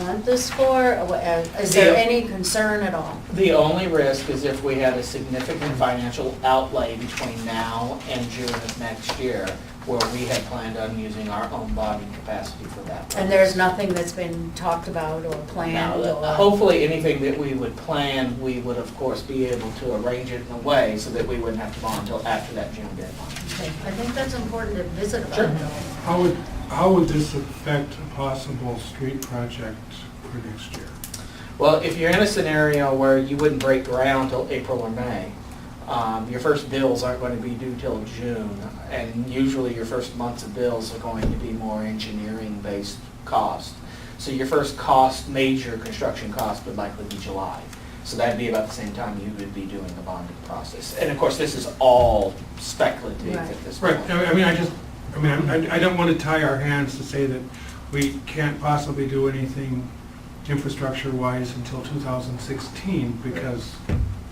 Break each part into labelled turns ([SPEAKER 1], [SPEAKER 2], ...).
[SPEAKER 1] want this for? Or what- uh, Is there
[SPEAKER 2] Yeah.
[SPEAKER 1] any concern at all?
[SPEAKER 2] The only risk is if we had a significant financial outlay between now and June of next year, where we had planned on using our own bonding capacity for that.
[SPEAKER 1] And there's nothing that's been talked about or
[SPEAKER 2] Now,
[SPEAKER 1] planned
[SPEAKER 2] that-
[SPEAKER 1] or?
[SPEAKER 2] hopefully, anything that we would plan, we would of course be able to arrange it in a way so that we wouldn't have to bond until after that June deadline.
[SPEAKER 1] Okay, I think that's important to visit
[SPEAKER 2] Sure.
[SPEAKER 1] about though.
[SPEAKER 3] How would, how would this affect a possible street project for next year?
[SPEAKER 2] Well, if you're in a scenario where you wouldn't break ground till April or May, um, your first bills aren't going to be due till June, and usually your first months of bills are going to be more engineering-based cost. So your first cost, major construction cost would likely be July. So that'd be about the same time you would be doing the bonding process. And of course, this is all speculative
[SPEAKER 1] Right.
[SPEAKER 2] at this point.
[SPEAKER 3] Right, I I mean, I just, I mean, I I don't want to tie our hands to say that we can't possibly do anything infrastructure-wise until 2016, because,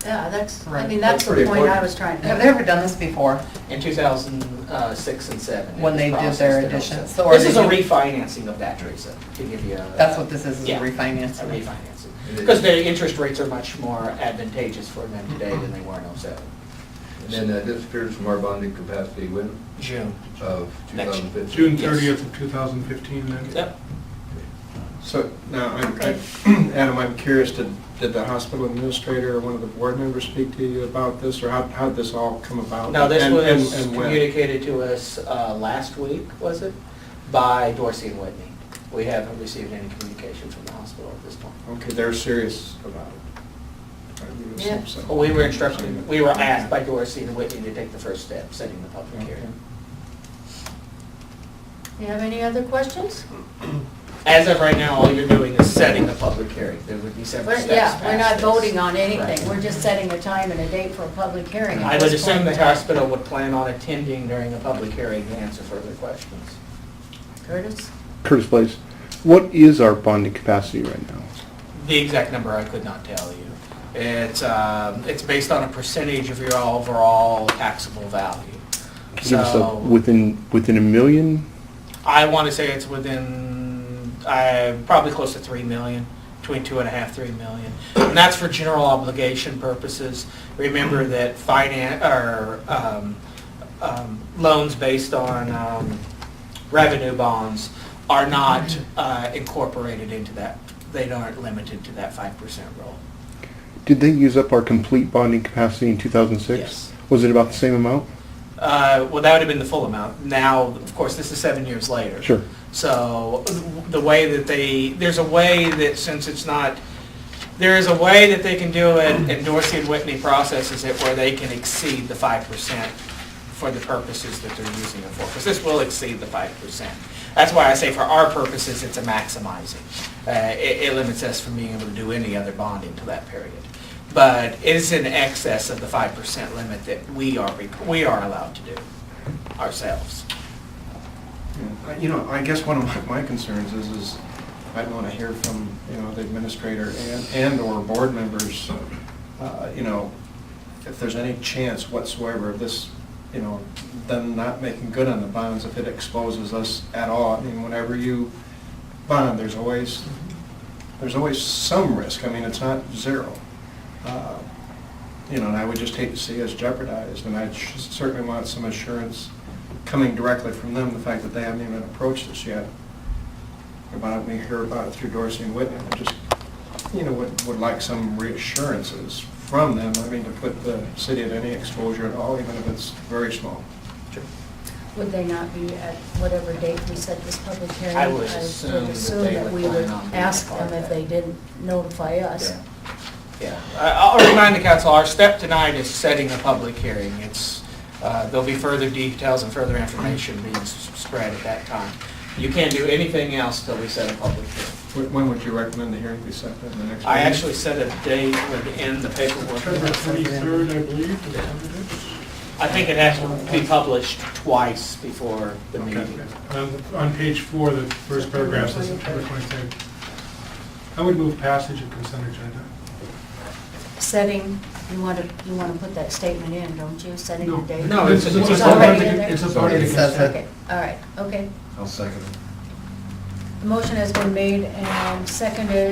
[SPEAKER 1] Yeah, that's, I
[SPEAKER 4] Right.
[SPEAKER 1] mean, that's
[SPEAKER 2] That's
[SPEAKER 1] the
[SPEAKER 2] pretty
[SPEAKER 1] point I
[SPEAKER 2] important.
[SPEAKER 1] was trying to.
[SPEAKER 4] Have they ever done this before?
[SPEAKER 2] In 2006 and 7.
[SPEAKER 4] When they did their
[SPEAKER 2] addition.
[SPEAKER 4] additions, so are
[SPEAKER 2] This
[SPEAKER 4] they
[SPEAKER 2] is a
[SPEAKER 4] doing-
[SPEAKER 2] refinancing of that, Teresa, to give you a...
[SPEAKER 4] That's what this is, is a
[SPEAKER 2] Yeah, A
[SPEAKER 4] refinancing.
[SPEAKER 2] refinancing. Because the interest rates are much more advantageous for them today than they were in 07.
[SPEAKER 5] And then that disappears from our bonding capacity when,
[SPEAKER 2] June.
[SPEAKER 5] of
[SPEAKER 2] Next year.
[SPEAKER 5] 2015?
[SPEAKER 3] June
[SPEAKER 2] Yes.
[SPEAKER 3] 30th of 2015, then?
[SPEAKER 2] Yep.
[SPEAKER 6] So now, I'm-
[SPEAKER 1] Okay.
[SPEAKER 6] I- Adam, I'm curious, did did the hospital administrator or one of the board members speak to you about this, or how how did this all come about?
[SPEAKER 2] Now, this
[SPEAKER 6] And-
[SPEAKER 2] was
[SPEAKER 6] and- and when?
[SPEAKER 2] communicated to us uh, last week, was it, by Dorsey and Whitney. We haven't received any communication from the hospital at this point.
[SPEAKER 6] Okay, they're serious about it. I would assume
[SPEAKER 1] Yeah.
[SPEAKER 6] so.
[SPEAKER 2] Well, We were instructed, we were asked by Dorsey and Whitney to take the first step, setting the public
[SPEAKER 6] Okay.
[SPEAKER 2] hearing.
[SPEAKER 1] You have any other questions?
[SPEAKER 2] As of right now, all you're doing is setting the public hearing. There would be several
[SPEAKER 1] We're-
[SPEAKER 2] steps
[SPEAKER 1] Yeah, we're not
[SPEAKER 2] past this.
[SPEAKER 1] voting on anything,
[SPEAKER 2] Right.
[SPEAKER 1] we're just setting a time and a date for a public hearing. at
[SPEAKER 2] I would
[SPEAKER 1] this
[SPEAKER 2] assume
[SPEAKER 1] point
[SPEAKER 2] the
[SPEAKER 1] in time.
[SPEAKER 2] hospital would plan on attending during a public hearing to answer further questions.
[SPEAKER 1] Curtis?
[SPEAKER 7] Curtis Place, what is our bonding capacity right now?
[SPEAKER 2] The exact number I could not tell you. It's, um, it's based on a percentage of your overall taxable value.
[SPEAKER 7] Could you Give us a,
[SPEAKER 2] So,
[SPEAKER 7] within, within a million?
[SPEAKER 2] I want to say it's within, uh, probably close to 3 million, between two and a half, three million. And that's for general obligation purposes. Remember that finance, or um, um, loans based on um, revenue bonds are not uh, incorporated into that. They aren't limited to that 5% rule.
[SPEAKER 7] Did they use up our complete bonding capacity in 2006?
[SPEAKER 2] Yes.
[SPEAKER 7] Was it about the same amount?
[SPEAKER 2] Uh, Well, that would have been the full amount. Now, of course, this is seven years later.
[SPEAKER 7] Sure.
[SPEAKER 2] So the way that they, there's a way that since it's not, there is a way that they can do it, and Dorsey and Whitney processes it where they can exceed the 5% for the purposes that they're using it for, because this will exceed the 5%. That's why I say for our purposes, it's a maximizing. Uh, It it limits us from being able to do any other bonding to that period. But it is in excess of the 5% limit that we are, we are allowed to do ourselves.
[SPEAKER 6] Yeah. You know, I guess one of my my concerns is, is I'd want to hear from, you know, the administrator and, and/or board members, uh, you know, if there's any chance whatsoever of this, you know, them not making good on the bonds if it exposes us at all. I mean, whenever you bond, there's always, there's always some risk. I mean, it's not zero. Uh, You know, and I would just hate to see us jeopardized, and I sh- certainly want some assurance coming directly from them, the fact that they haven't even approached this yet. About, we hear about it through Dorsey and Whitney, I just, you know, would, would like some reassurances from them, I mean, to put the city at any exposure at all, even if it's very small.
[SPEAKER 1] Would they not be at whatever date we set this public hearing?
[SPEAKER 2] I would assume that
[SPEAKER 1] assume
[SPEAKER 2] they
[SPEAKER 1] that
[SPEAKER 2] would
[SPEAKER 1] we
[SPEAKER 2] plan
[SPEAKER 1] would
[SPEAKER 2] on being
[SPEAKER 1] ask
[SPEAKER 2] part of
[SPEAKER 1] them if
[SPEAKER 2] that.
[SPEAKER 1] they didn't notify us.
[SPEAKER 2] Yeah, Yeah. I- I'll remind the council, our step tonight is setting a public hearing. It's, uh, there'll be further details and further information being s- spread at that time. You can't do anything else till we set a public hearing.
[SPEAKER 6] Wh- When would you recommend the hearing be set, then the next meeting?
[SPEAKER 2] I actually set a date within the paperwork.
[SPEAKER 3] October 23rd, I believe, is when it is.
[SPEAKER 2] I think it has to be published twice before the meeting.
[SPEAKER 3] Um, On page four, the first paragraph says September 23rd. I would move passage of consent agenda.
[SPEAKER 1] Setting, you want to, you want to put that statement in, don't you? Setting the
[SPEAKER 3] No.
[SPEAKER 1] date?
[SPEAKER 2] No, it's- it's-
[SPEAKER 1] It's
[SPEAKER 3] a part of
[SPEAKER 1] already
[SPEAKER 3] the-
[SPEAKER 1] in there?
[SPEAKER 3] It's a part of the
[SPEAKER 4] It says
[SPEAKER 3] consent.
[SPEAKER 1] Okay, all right, okay.
[SPEAKER 5] I'll second it.
[SPEAKER 1] The motion has been made and seconded